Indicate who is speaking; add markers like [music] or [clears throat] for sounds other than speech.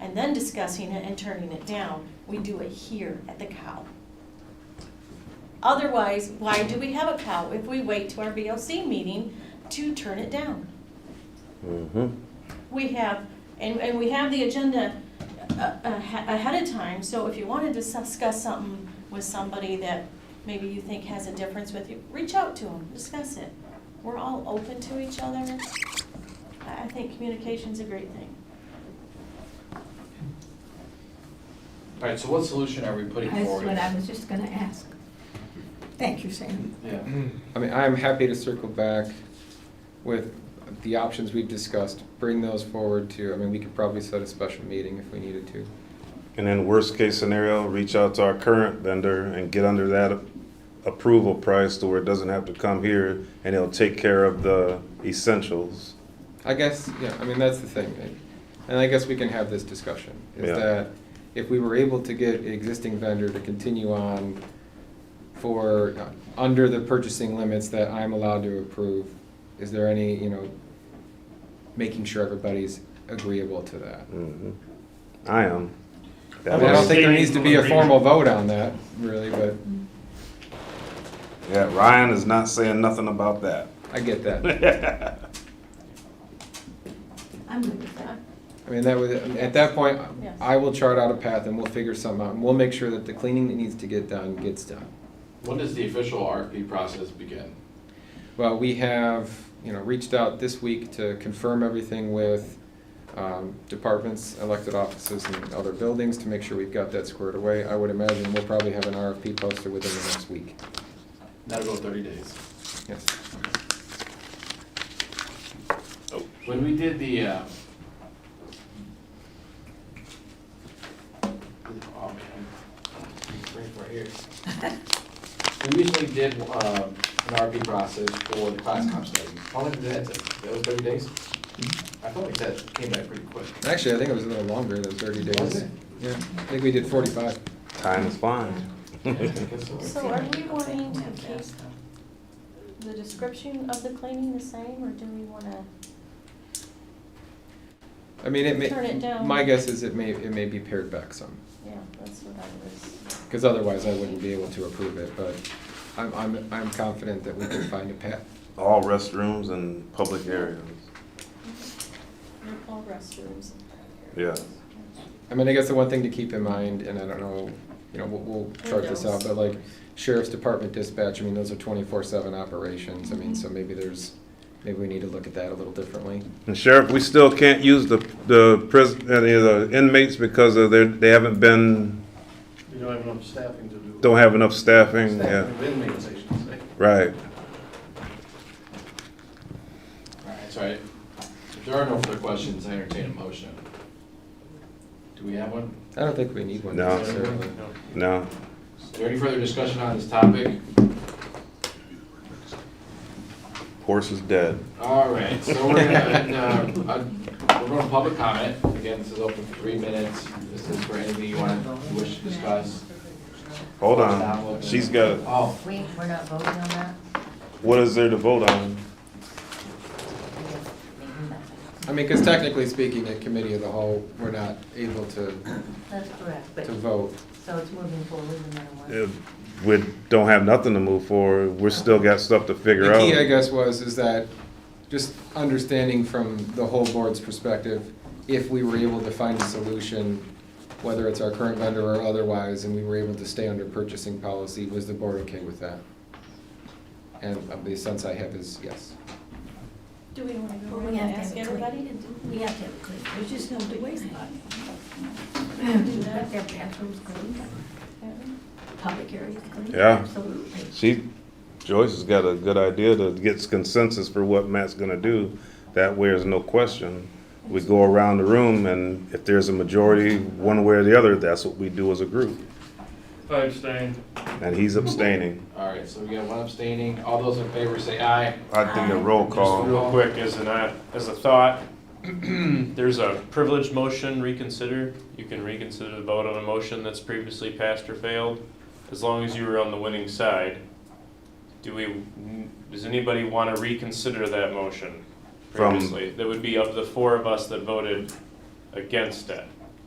Speaker 1: and then discussing it and turning it down. We do it here at the cow. Otherwise, why do we have a cow if we wait to our VOC meeting to turn it down?
Speaker 2: Mm-hmm.
Speaker 1: We have, and, and we have the agenda uh, uh, ahe- ahead of time, so if you wanted to discuss something with somebody that maybe you think has a difference with you, reach out to them, discuss it. We're all open to each other. I, I think communication's a great thing.
Speaker 3: All right, so what solution are we putting
Speaker 4: That's
Speaker 3: forward?
Speaker 4: what I was just gonna ask. Thank you, Sam.
Speaker 3: Yeah.
Speaker 5: I mean, I'm happy to circle back with the options we've discussed, bring those forward to, I mean, we could probably set a special meeting if we needed to.
Speaker 2: And then worst case scenario, reach out to our current vendor and get under that approval price to where it doesn't have to come here and it'll take care of the essentials.
Speaker 5: I guess, yeah, I mean, that's the thing. right? And I guess we can have this discussion, is
Speaker 2: Yeah.
Speaker 5: that if we were able to get an existing vendor to continue on for, uh, under the purchasing limits that I'm allowed to approve, is there any, you know, making sure everybody's agreeable to that?
Speaker 2: Mhm. I am.
Speaker 5: I
Speaker 2: That
Speaker 5: mean, I don't
Speaker 2: was-
Speaker 5: think there needs to be a formal vote on that, really, but
Speaker 2: Yeah, Ryan is not saying nothing about that.
Speaker 5: I get that.
Speaker 3: [laughs]
Speaker 4: I'm good with that.
Speaker 5: I mean, that would, at that point,
Speaker 1: Yes.
Speaker 5: I will chart out a path and we'll figure something out. And we'll make sure that the cleaning that needs to get done gets done.
Speaker 3: When does the official RFP process begin?
Speaker 5: Well, we have, you know, reached out this week to confirm everything with um, departments, elected offices, and other buildings to make sure we've got that squared away. I would imagine we'll probably have an RFP posted within the next week.
Speaker 3: That'll go thirty days.
Speaker 5: Yes.
Speaker 3: When we did the, uh, oh man, bring it right here. We recently did, um, an RFP process for the class comp study. How long did that take? That was thirty days? I felt like that came back pretty quick.
Speaker 5: Actually, I think it was a little longer than 30 days.
Speaker 3: Was it?
Speaker 5: Yeah, I think we did 45.
Speaker 2: Time is fine.
Speaker 3: I guess so.
Speaker 1: So are we wanting to keep the description of the cleaning the same, or do we wanna,
Speaker 5: I mean, it may.
Speaker 1: Turn it down.
Speaker 5: My guess is it may, it may be pared back some.
Speaker 1: yeah, that's what I was.
Speaker 5: Because otherwise I wouldn't be able to approve it, but I'm, I'm, I'm confident that we can find a path.
Speaker 2: All restrooms and public areas.
Speaker 1: All restrooms.
Speaker 2: Yeah.
Speaker 5: I mean, I guess the one thing to keep in mind, and I don't know, you know, we'll, we'll chart this out, but like sheriff's department dispatch, I mean, those are twenty-four seven operations. I mean, so maybe there's, maybe we need to look at that a little differently.
Speaker 2: And Sheriff, we still can't use the, the prison, any of the inmates because of their, they haven't been,
Speaker 6: You don't have enough staffing to do.
Speaker 2: don't have enough staffing,
Speaker 6: Staffing
Speaker 2: yeah,
Speaker 6: of inmates, I should say.
Speaker 2: right.
Speaker 3: Alright, so I- if there are no further questions, I entertain a motion. Do we have one?
Speaker 5: I don't think we need one
Speaker 2: No.
Speaker 5: necessarily.
Speaker 2: No,
Speaker 3: Is there any further discussion on this topic?
Speaker 2: horse is dead.
Speaker 3: All right, so we're gonna, uh, uh, we're going to public comment. Again, this is open for three minutes. This is for anything you want, you wish to discuss.
Speaker 2: Hold on, Um, she's got,
Speaker 3: Oh,
Speaker 7: Wait, we're not voting on that?
Speaker 2: what is there to vote on?
Speaker 5: I mean, because technically speaking, at committee of the whole, we're not able to,
Speaker 7: That's correct, but,
Speaker 5: to vote.
Speaker 7: so it's moving forward no matter what.
Speaker 2: If We don't have nothing to move forward, we're still got stuff to figure
Speaker 5: The key, I
Speaker 2: out.
Speaker 5: guess, was, is that, just understanding from the whole board's perspective, if we were able to find a solution, whether it's our current vendor or otherwise, and we were able to stay under purchasing policy, was the board okay with that? And uh, the sense I have is yes.
Speaker 1: Do we wanna go
Speaker 4: Well,
Speaker 1: around
Speaker 4: we have
Speaker 1: and
Speaker 4: to
Speaker 1: ask
Speaker 4: have a clean.
Speaker 1: everybody?
Speaker 4: We have to have it clean, there's just no two ways about it. We [laughs] have to have bathrooms cleaned, public areas cleaned.
Speaker 2: Yeah.
Speaker 4: Absolutely.
Speaker 2: She, Joyce has got a good idea to get consensus for what Matt's gonna do, that way there's no question. We go around the room and if there's a majority, one way or the other, that's what we do as a group.
Speaker 8: I abstain.
Speaker 2: And he's abstaining.
Speaker 3: all right, so we got one abstaining. All those in favor say aye.
Speaker 2: I think a roll
Speaker 8: Just
Speaker 2: call.
Speaker 8: real quick, as an, uh, as a thought, [clears throat] there's a privileged motion reconsider. You can reconsider the vote on a motion that's previously passed or failed, as long as you were on the winning side. Do we, does anybody want to reconsider that motion
Speaker 2: From-
Speaker 8: previously? That would be of the four of us that voted against it.